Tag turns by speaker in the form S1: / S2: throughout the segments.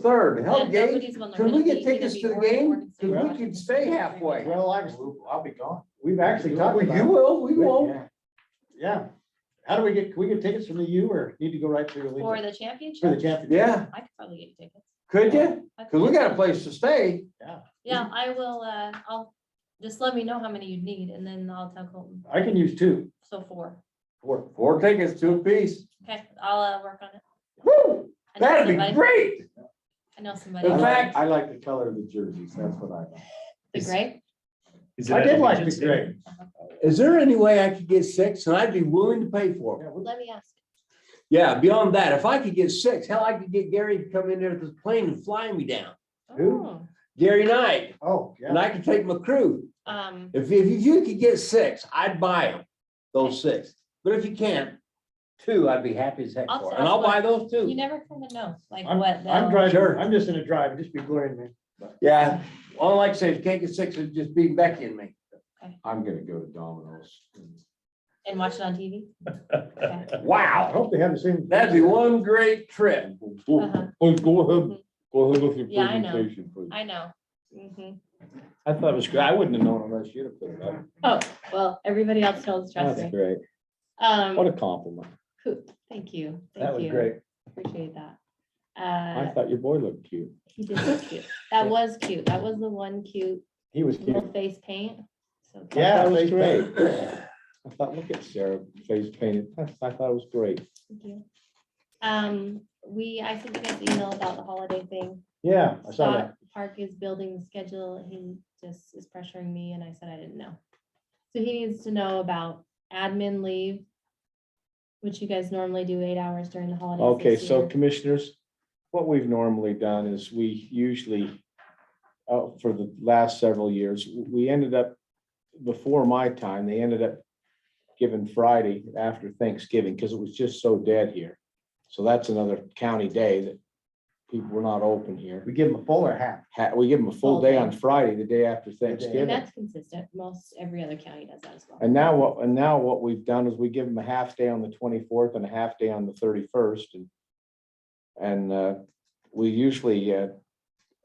S1: third, hell,
S2: Yeah,
S1: Gabe,
S2: nobody's gonna
S1: can we
S2: really
S1: get
S2: be- gonna
S1: tickets
S2: be
S1: to the
S2: ordering
S1: game?
S2: ordinance
S1: Can we
S2: anymore.
S1: can stay halfway.
S3: Well, actually, I'll be gone. We've actually talked
S1: Well,
S3: about.
S1: You
S3: it.
S1: will, we won't.
S3: Yeah. Yeah. How do we get, can we get tickets from the U or need to go right through
S2: For
S3: Allegiant?
S2: the championship?
S3: For the championship?
S1: Yeah,
S2: I could probably get tickets.
S1: could you?
S2: I
S1: Cause we
S2: could.
S1: got a place to stay.
S3: Yeah,
S2: Yeah, I will, uh, I'll, just let me know how many you need and then I'll tell Colton,
S3: I can use two.
S2: so four.
S1: Four, four tickets, two apiece.
S2: Okay, I'll, uh, work on it.
S1: Woo,
S2: I know
S1: that'd be
S2: somebody-
S1: great.
S2: I know somebody.
S1: In
S3: I
S1: fact-
S3: like- I like the color of the jerseys, that's what I like.
S2: The grape?
S4: Is it
S3: I
S4: at
S3: did like
S4: Allegiant
S3: the
S4: Stadium?
S3: gray.
S5: Is there any way I could get six and I'd be willing to pay for it?
S3: Yeah, we-
S2: Let me ask.
S5: Yeah, beyond that, if I could get six, hell, I could get Gary to come in there with his plane and fly me down.
S3: Who?
S2: Oh,
S5: Gary Knight,
S3: Oh,
S5: and
S3: yeah.
S5: I could take my crew.
S2: Um,
S5: If, if you could get six, I'd buy them, those six. But if you can't, two, I'd be happy as heck
S2: I'll
S5: for.
S2: tell
S5: And
S2: you
S5: I'll buy
S2: what,
S5: those
S2: you
S5: too.
S2: never kind of know, like
S3: I'm,
S2: what.
S3: I'm
S2: they'll-
S3: driving,
S5: Sure.
S3: I'm just in a drive, just be glaring at me.
S5: Yeah,
S1: All I like to say is can't get six, it'd just be Becky and me.
S3: I'm gonna go to Domino's.
S2: And watch it on TV? Okay.
S3: I
S1: Wow,
S3: hope they have the same.
S1: that'd be one great trip.
S2: Uh-huh.
S6: Oh, go ahead, go ahead with your
S2: Yeah, I know.
S6: presentation, please.
S2: I know. Mhm.
S4: I thought it was great. I wouldn't have known unless you'd have put it up.
S2: Oh, well, everybody else knows, trust me.
S4: great. What a
S2: Um,
S4: compliment.
S2: cool. thank you.
S4: That
S2: thank
S4: was
S2: you.
S4: great.
S2: Appreciate that.
S4: I
S2: Uh,
S4: thought your boy looked cute.
S2: he did look cute. That was cute. That was the one cute
S4: He was cute.
S2: little face paint. So cute.
S4: Yeah,
S3: Yeah,
S4: that was
S3: face
S4: great. I thought, look at Sarah, face painted. That's- I thought it was great.
S2: Thank you. Um, we, I sent you guys an email about the holiday thing.
S3: Yeah, I saw that.
S2: Scott Park is building the schedule. He just is pressuring me and I said I didn't know. So he needs to know about admin leave, which you guys normally do eight hours during the holidays.
S4: Okay,
S2: this
S4: so
S2: year.
S4: commissioners, what we've normally done is we usually, uh, for the last several years, we ended up, before my time, they ended up giving Friday after Thanksgiving because it was just so dead here. So that's another county day that people were not open here.
S3: We give them a full or half.
S4: Ha- We give them a full
S2: Full
S4: day
S2: day.
S4: on Friday, the day after
S2: And
S4: Thanksgiving.
S2: that's consistent. Most, every other county does that as well.
S4: And now what, and now what we've done is we give them a half day on the twenty-fourth and a half day on the thirty-first and. And uh, we usually, uh,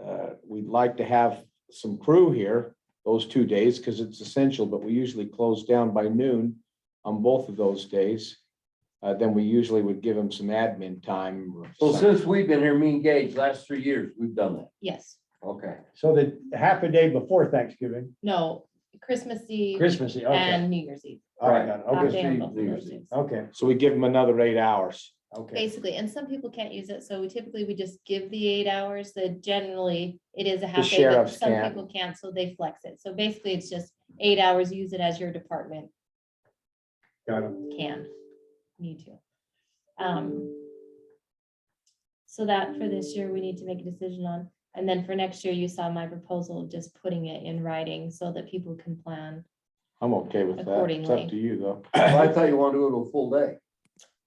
S4: uh, we'd like to have some crew here those two days because it's essential, but we usually close down by noon on both of those days. Uh, then we usually would give them some admin time. or
S1: So
S4: something.
S1: since we've been here, me and Gage, last three years, we've done that.
S2: Yes,
S1: Okay.
S3: So the half a day before Thanksgiving,
S2: no, Christmas Eve
S3: Christmas, Eve, okay.
S2: and New Year's Eve.
S3: All right, got it.
S2: Half
S3: Okay,
S2: day on
S1: Eve,
S2: both of
S1: New
S2: those
S1: Year's
S2: days.
S3: okay,
S4: So we give them another eight hours.
S3: okay.
S2: Basically, and some people can't use it, so we typically, we just give the eight hours, that generally, it is a half day, but
S4: sheriffs
S2: some
S4: can't.
S2: people can't, so they flex it, so basically, it's just eight hours, use it as your department
S3: Got it.
S2: can, need to. Um. So that for this year, we need to make a decision on, and then for next year, you saw my proposal of just putting it in writing so that people can plan.
S4: I'm okay with that. It's
S2: Accordingly.
S4: up to you though.
S1: Well, I thought you want to do it a full day.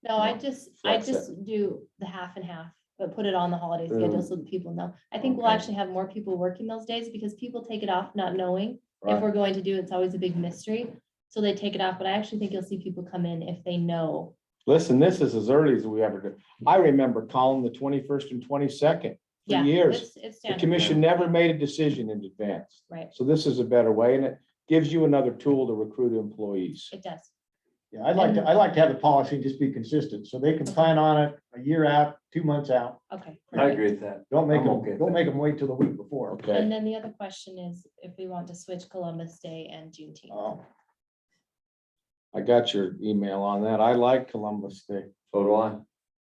S2: No, I
S4: No,
S2: just, I
S4: flex it.
S2: just do the half and half, but put it on the holiday schedule so that people know. I think we'll
S1: Okay.
S2: actually have more people working those days because people take it off not knowing. If we're going to do, it, it's always a big mystery. So they take it off, but I actually think you'll see people come in if they know.
S4: Listen, this is as early as we ever did. I remember calling the twenty-first and twenty-second for
S2: Yeah,
S4: years.
S2: it's- It's
S4: The
S2: standard.
S4: commission never made a decision in advance.
S2: Right.
S4: So this is a better way and it gives you another tool to recruit employees.
S2: It does.
S3: Yeah, I'd like to, I'd like to have the policy just be consistent, so they can plan on it a year out, two months out.
S2: Okay.
S1: I agree with that.
S3: Don't make
S1: I'm okay
S3: them,
S1: with
S3: don't
S1: that.
S3: make them wait till the week before.
S4: Okay,
S2: And then the other question is if we want to switch Columbus Day and Juneteenth.
S3: Oh,
S4: I got your email on that. I like Columbus Day.
S1: So do I.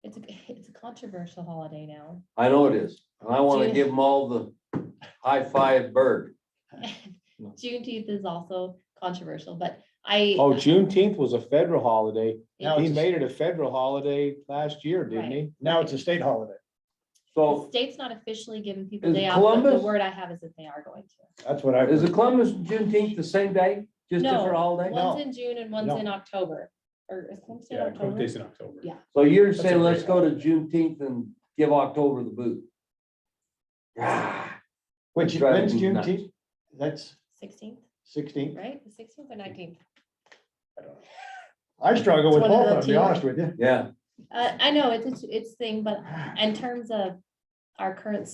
S2: It's a, it's a controversial holiday now.
S1: I know it is. And I want to
S2: Dude.
S1: give them all the high five bird.
S2: Juneteenth is also controversial, but I.
S4: Oh, Juneteenth was a federal holiday.
S3: Now
S4: He
S3: it's a-
S4: made it a federal holiday last year, didn't he?
S3: Now it's a state holiday.
S2: The
S1: So
S2: state's not officially giving people
S1: Is
S2: day off, but the
S1: Columbus-
S2: word I have is that they are going to.
S3: That's what I,
S1: is the Columbus and Juneteenth the same day? Just
S2: No,
S1: different holiday?
S2: One's in June and one's
S3: No.
S2: in October, or is Columbus Day in
S7: Yeah, Columbus
S2: October?
S7: Day's in October.
S2: Yeah.
S1: So you're
S3: a
S1: saying
S3: great
S1: let's go to Juneteenth and give October the boot? Ah,
S3: which,
S1: Driving
S3: when's
S1: me nuts.
S3: Juneteenth? That's
S2: Sixteenth,
S3: sixteenth.
S2: right? The sixteenth or nineteenth?
S3: I struggle with
S2: It's one of
S3: both, I'll
S2: the
S3: be
S2: two.
S3: honest with you.
S1: Yeah.
S2: Uh, I know, it's, it's- it's thing, but in terms of our current